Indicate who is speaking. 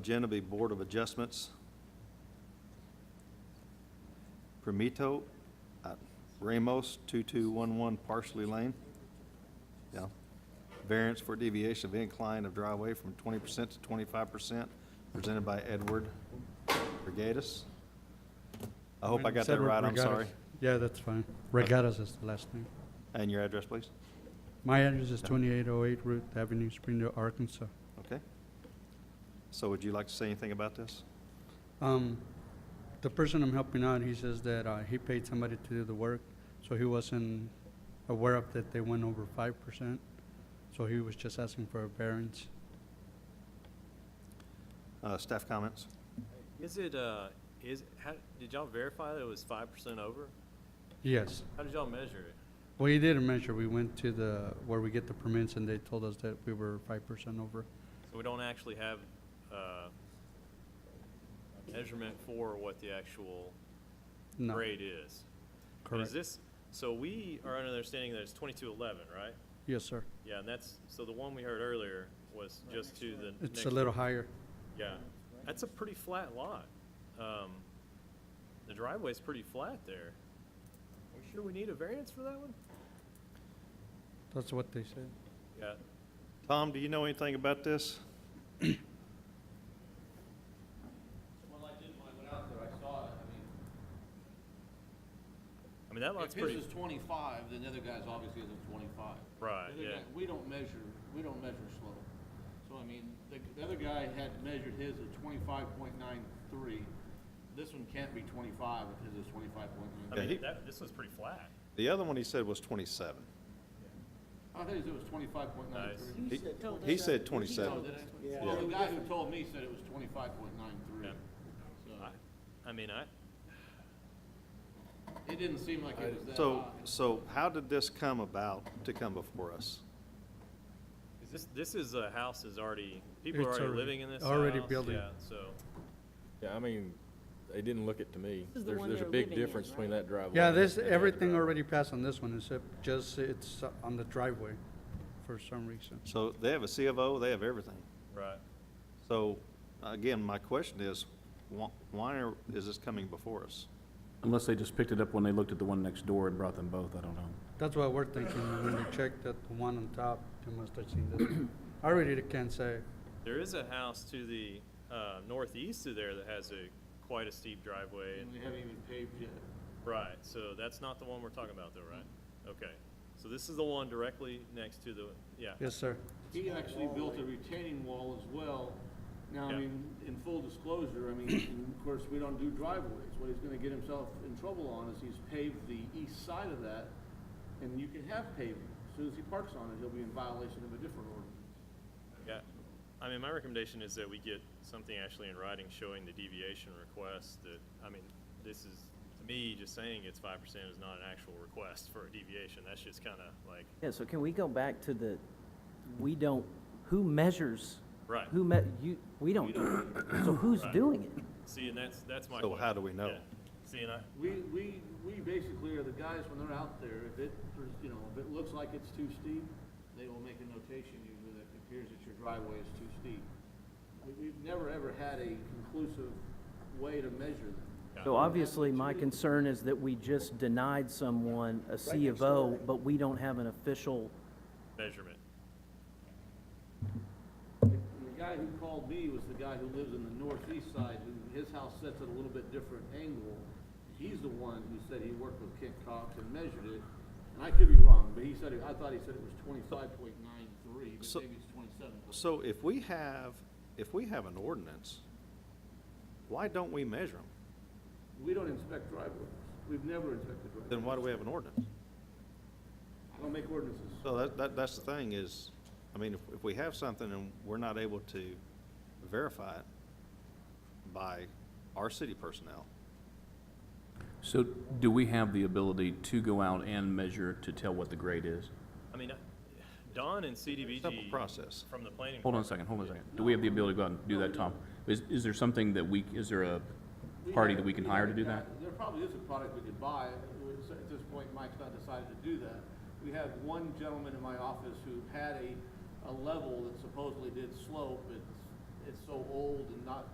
Speaker 1: Agenda be Board of Adjustments. Primito, uh, Ramos, 2211 Parsley Lane. Yeah. Variance for deviation of incline of driveway from 20% to 25%, presented by Edward Regatas. I hope I got that
Speaker 2: Edward
Speaker 1: right, I'm
Speaker 2: Regatas.
Speaker 1: sorry.
Speaker 2: Yeah, that's fine. Regatas is the last name.
Speaker 1: And your address, please?
Speaker 2: My address is 2808 Root Avenue, Springdale, Arkansas.
Speaker 1: Okay. So would you like to say anything about this?
Speaker 2: Um, The person I'm helping out, he says that uh, he paid somebody to do the work, so he wasn't aware of that they went over 5%, so he was just asking for a variance.
Speaker 1: Uh, Staff comments?
Speaker 3: Is it, uh, is, how, did y'all verify that it was five percent over?
Speaker 2: Yes.
Speaker 3: How did y'all measure it?
Speaker 2: Well, he did a measure. We went to the, where we get the permits, and they told us that we were 5% over.
Speaker 3: So we don't actually have, uh, measurement for what the actual
Speaker 2: No,
Speaker 3: grade is. And Is
Speaker 2: correct.
Speaker 3: this, so we are under the understanding that it's twenty-two eleven, right?
Speaker 2: Yes, sir.
Speaker 3: Yeah, and that's, so the one we heard earlier was just to the next.
Speaker 2: It's a little higher.
Speaker 3: Yeah, that's a pretty flat lot. Um, the driveway's pretty flat there. Are we sure we need a variance for that one?
Speaker 2: That's what they said.
Speaker 3: Yeah,
Speaker 1: Tom, do you know anything about this?
Speaker 4: Well, I did when I went out there, I saw it, I mean,
Speaker 3: I mean, that lot's
Speaker 4: if his
Speaker 3: pretty.
Speaker 4: is twenty-five, then the other guy's obviously isn't twenty-five.
Speaker 3: Right,
Speaker 4: The other
Speaker 3: yeah.
Speaker 4: guy- We don't measure, we don't measure slope. So, I mean, the, the other guy had measured his at twenty-five point nine three. This one can't be twenty-five if his is twenty-five point
Speaker 3: I
Speaker 4: nine.
Speaker 1: Yeah, he-
Speaker 3: mean, that, this was pretty flat.
Speaker 1: The other one he said was 27.
Speaker 4: I thought his was twenty-five point nine
Speaker 3: Nice.
Speaker 4: three.
Speaker 1: He-
Speaker 5: told
Speaker 1: He
Speaker 5: us
Speaker 1: said
Speaker 5: that-
Speaker 1: 27.
Speaker 5: Yeah.
Speaker 4: Well, the guy who told me said it was twenty-five point nine three.
Speaker 3: Yeah.
Speaker 4: So,
Speaker 3: I, I mean, I,
Speaker 4: it didn't seem like it was that high.
Speaker 1: So, so how did this come about to come before us?
Speaker 3: is this, this is a house is already, people are
Speaker 2: It's
Speaker 3: already
Speaker 2: already-
Speaker 3: living in this house.
Speaker 2: already building.
Speaker 3: Yeah, so,
Speaker 6: Yeah, I mean, they didn't look it to me.
Speaker 5: is the
Speaker 6: There's,
Speaker 5: one
Speaker 6: there's a
Speaker 5: they're
Speaker 6: big
Speaker 5: living in,
Speaker 6: difference between that driveway.
Speaker 2: Yeah,
Speaker 6: and
Speaker 2: this,
Speaker 6: that other
Speaker 2: everything
Speaker 6: driveway.
Speaker 2: already passed on this one, except just it's uh, on the driveway for some reason.
Speaker 1: So they have a C of O, they have everything.
Speaker 3: right.
Speaker 1: So again, my question is, wh- why are- is this coming before us?
Speaker 7: Unless they just picked it up when they looked at the one next door and brought them both, I don't know.
Speaker 2: That's what we're thinking, when we checked that the one on top, they must have seen this one. I really can't say,
Speaker 3: There is a house to the, uh, northeast of there that has a, quite a steep driveway.
Speaker 4: And
Speaker 3: and-
Speaker 4: we haven't even paved yet.
Speaker 3: Right, so that's not the one we're talking about though, right? Okay, so this is the one directly next to the, yeah.
Speaker 2: yes, sir.
Speaker 4: He actually built a retaining wall as well. Now,
Speaker 3: Yeah.
Speaker 4: I mean, in full disclosure, I mean, and of course, we don't do driveways. What he's gonna get himself in trouble on is he's paved the east side of that, and you can have paving. As soon as he parks on it, he'll be in violation of a different ordinance.
Speaker 3: Yeah, I mean, my recommendation is that we get something actually in writing showing the deviation request that, I mean, this is, to me, just saying it's five percent is not an actual request for a deviation, that's just kinda like,
Speaker 5: Yeah, so can we go back to the, we don't, who measures?
Speaker 3: Right.
Speaker 5: Who me, you, we don't, so who's
Speaker 3: Right.
Speaker 5: doing it?
Speaker 3: see, and that's, that's my
Speaker 1: So
Speaker 3: question.
Speaker 1: how do we know?
Speaker 3: Yeah. See, and I,
Speaker 4: We, we, we basically are the guys when they're out there, if it, you know, if it looks like it's too steep, they will make a notation usually that appears that your driveway is too steep. We- We've never, ever had a conclusive way to measure them.
Speaker 5: So obviously, my concern is that we just denied someone a C of O, but we don't have an official,
Speaker 3: measurement,
Speaker 4: And The guy who called me was the guy who lives in the northeast side, who, his house sets at a little bit different angle. He's the one who said he worked with Kent Cox and measured it, and I could be wrong, but he said, it- I thought he said it was twenty-five point nine three, but
Speaker 1: So-
Speaker 4: maybe it's twenty-seven.
Speaker 1: So if we have, if we have an ordinance, why don't we measure them?
Speaker 4: We don't inspect driveways, we've never inspected
Speaker 1: Then
Speaker 4: driveways.
Speaker 1: why do we have an ordinance?
Speaker 4: I don't make ordinances.
Speaker 1: So that, that, that's the thing is, I mean, if, if we have something and we're not able to verify it by our city personnel,
Speaker 7: So do we have the ability to go out and measure to tell what the grade is?
Speaker 3: I mean, I- Don and CDBG.
Speaker 1: Simple process.
Speaker 3: From the planning.
Speaker 7: Hold on a second, hold on a second. Do we have the ability to go out and do that, Tom? Is, is there something that we, is there a
Speaker 4: We
Speaker 7: party
Speaker 4: have-
Speaker 7: that we can
Speaker 4: have
Speaker 7: hire to
Speaker 4: a
Speaker 7: do
Speaker 4: guy-
Speaker 7: that?
Speaker 4: There probably is a product we could buy. It was- At this point, Mike's not decided to do that. We have one gentleman in my office who had a, a level that supposedly did slope. It's, it's so old and not